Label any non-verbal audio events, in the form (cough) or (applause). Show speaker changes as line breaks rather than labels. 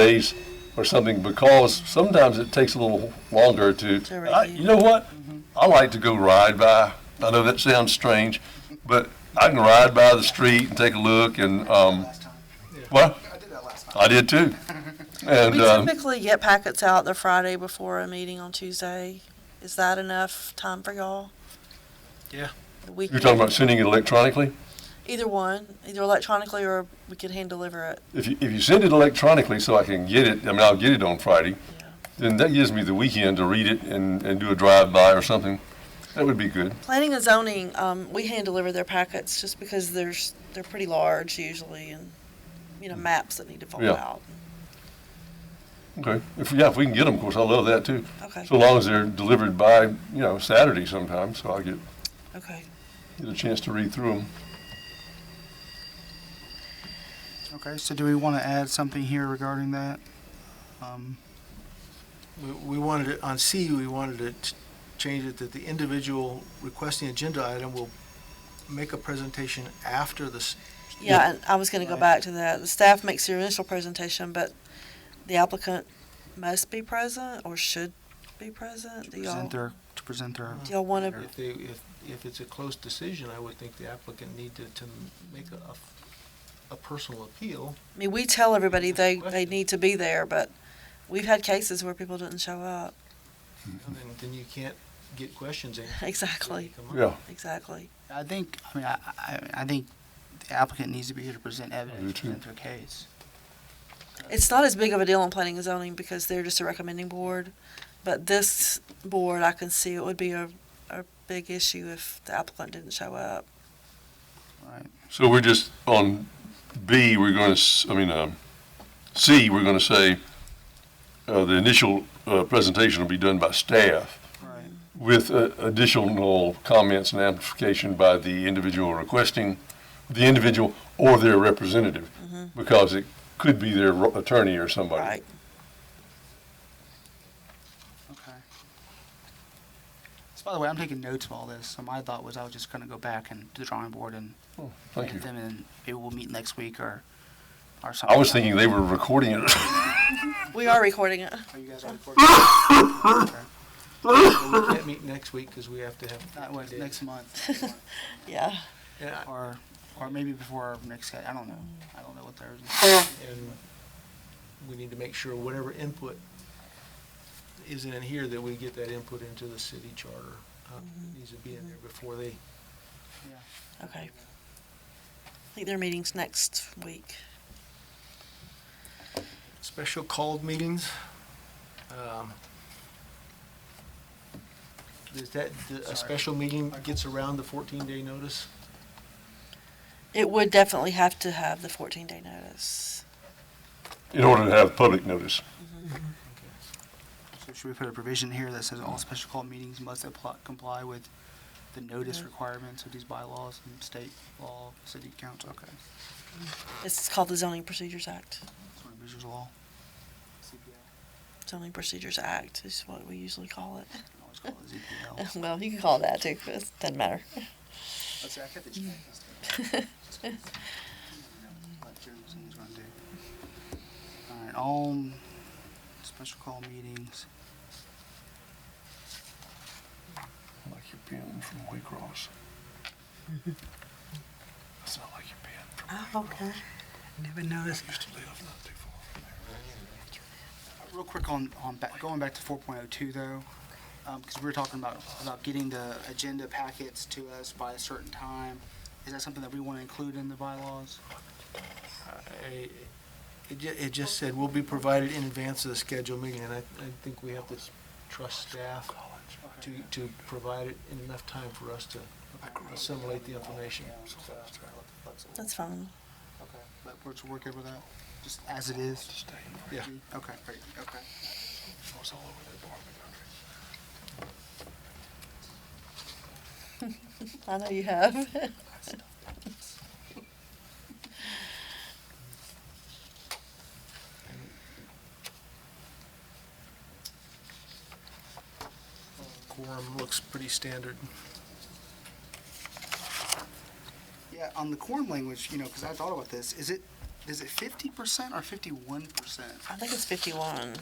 days or something because sometimes it takes a little longer to.
To
I,
review.
you know what? I like to go ride by. I know that sounds strange, but I can ride by the street and take a look and um,
Last time.
well,
I did that last time.
I did
(laughs)
too. And
We
um,
typically get packets out the Friday before a meeting on Tuesday. Is that enough time for y'all?
Yeah.
We
you're
can-
talking about sending it electronically.
Either one, either electronically or we could hand deliver it.
If you, if you send it electronically so I can get it, I mean, I'll get it on Friday, then that gives me the weekend to read it and, and do a drive-by or something. That would be good.
Planning and zoning, um, we hand deliver their packets just because there's, they're pretty large usually and, you know, maps that need to fall
Yeah.
out.
Okay. If, yeah, if we can get them, of course, I love that too.
Okay,
So long as they're delivered by, you know, Saturday sometime, so I'll get,
okay.
get a chance to read through them.
Okay, so do we want to add something here regarding that? Um,
We- We wanted it, on C, we wanted to ch- change it that the individual requesting agenda item will make a presentation after this.
Yeah, and I was gonna go
Right.
back to that. The staff makes their initial presentation, but the applicant must be present or should be present. Do y'all,
present
do
their, to present their,
y'all wanna,
If they, if, if it's a close decision, I would think the applicant need to, to make a, a- a personal appeal.
I mean, we tell everybody they, they need to be there, but we've had cases where people didn't show up. (laughs)
And then, then you can't get questions in.
Exactly,
Come on.
Yeah,
exactly.
I think, I mean, I, I, I think the applicant needs to be here to present
do
evidence,
too.
present their case.
It's not as big of a deal in planning and zoning because they're just a recommending board. But this board, I can see it would be a, a big issue if the applicant didn't show up.
Right,
so we're just, on B, we're going to, I mean, um, C, we're going to say, uh, the initial, uh, presentation will be done by staff.
right.
with uh, additional comments and amplification by the individual requesting, the individual or their representative, because it could be their ro- attorney or somebody.
Mm-hmm, Right.
Okay. So by the way, I'm taking notes of all this, so my thought was I was just gonna go back and do the drawing board and
Oh, Thank you.
get them, and maybe we'll meet next week or, or something.
I was thinking they were recording it. (laughs)
We are recording it.
Are you guys on recording? Okay.
We can't meet next week because we have to have.
That was
50 days.
next month,
Yeah.
And I-
or, or maybe before our next, I don't know, I don't know what theirs
And we need to make sure whatever input isn't in here, that we get that input into the city charter. Uh, it Needs to be in there before they,
is.
Okay. I think their meeting's next week.
special called meetings. um, Is that, the- a
Sorry.
special meeting gets around the fourteen day notice?
It would definitely have to have the fourteen day notice.
In order to have public notice.
So should we put a provision here that says all special call meetings must apply, comply with the notice requirements of these bylaws and state law, city council, okay.
It's called the Zoning Procedures Act.
Sort of visual law. CPL,
Zoning Procedures Act is what we usually call
you can always call it
(laughs)
ZPL.
Well, you can call it that too, 'cause it doesn't matter.
Let's see, I got the check list. Let Jeremy see what he's gonna do. All right, all um, special call meetings.
Like your pen from Waycross. That's not like your pen from
Okay.
Never noticed.
used to live not too far from there.
Real quick on, on back, going back to four point oh two though, um, cause we were talking about, about getting the agenda packets to us by a certain time. Is that something that we wanna include in the bylaws?
I- It ju, it just said will be provided in advance of the scheduled meeting, and I, I think we have to trust staff to, to provide it in enough time for us to assimilate the information.
That's fine.
Okay, but we're to work over that, just as it is?
Yeah.
Okay, great, okay.
I know you have.
Quorum looks pretty standard.
Yeah, on the quorum language, you know, because I thought about this, is it, is it fifty percent or fifty-one percent?
I think it's fifty-one.